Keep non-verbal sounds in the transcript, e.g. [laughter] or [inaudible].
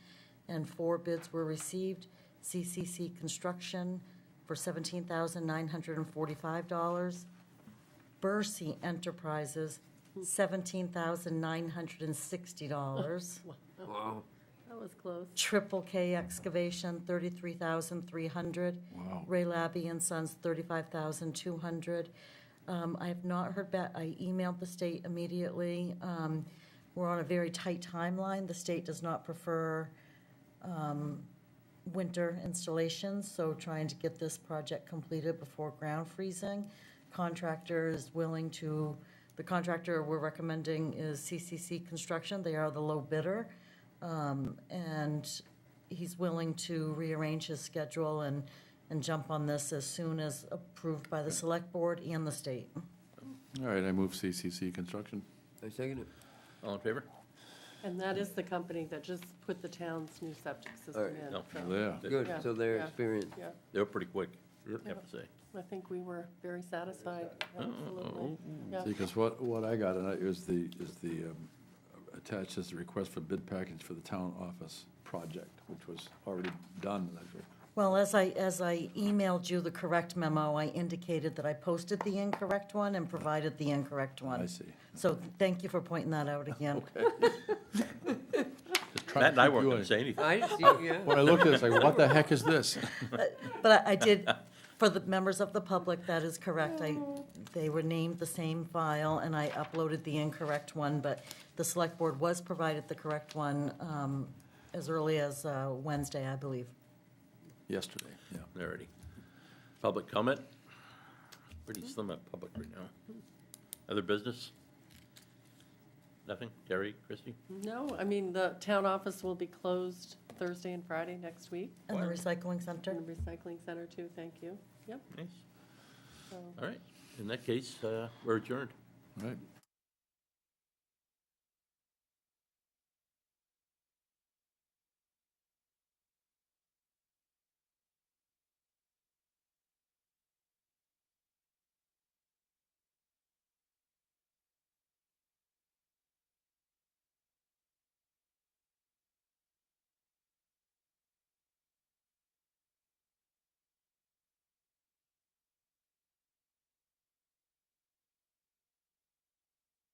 and four bids were received. CCC Construction for $17,945. Bercy Enterprises, $17,960. Wow. That was close. Triple K Excavation, thirty-three thousand three hundred. Wow. Ray Labby and Sons, thirty-five thousand two hundred. Um, I have not heard back, I emailed the state immediately. Um, we're on a very tight timeline. The state does not prefer, um, winter installations, so trying to get this project completed before ground freezing. Contractor is willing to, the contractor we're recommending is CCC Construction. They are the low bidder. Um, and he's willing to rearrange his schedule and, and jump on this as soon as approved by the select board and the state. All right, I move CCC Construction. I second it. All in favor? And that is the company that just put the town's new septic system Alright. in. No. so, Yeah, Good, Yeah, so they're yeah. experienced. Yeah, they're pretty quick, I have Yep. to say. I think we were very satisfied, absolutely. Yeah. Because what, what I got tonight is the, is the, um, attached is the request for bid package for the town office project, which was already done. and that's- Well, as I, as I emailed you the correct memo, I indicated that I posted the incorrect one and provided the incorrect one. I see. So thank you for pointing that out again. Just trying to Matt and I keep weren't you going in- to say anything. I see, yeah. When I looked at it, it's like, what [laughs] the heck is this? But I I did, for the members of the public, that is correct. I, they were named the same file, and I uploaded the incorrect one, but the select board was provided the correct one um, as early as uh, Wednesday, I believe. Yesterday, yeah. Alrighty. Public comment? Pretty slim at public right now. Other business? Nothing? Terry, Christie? No, I mean, the town office will be closed Thursday and Friday next week, And the What? recycling center? and the recycling center too, thank you. Yep, Nice. so. All right. In that case, uh, we're adjourned. All right,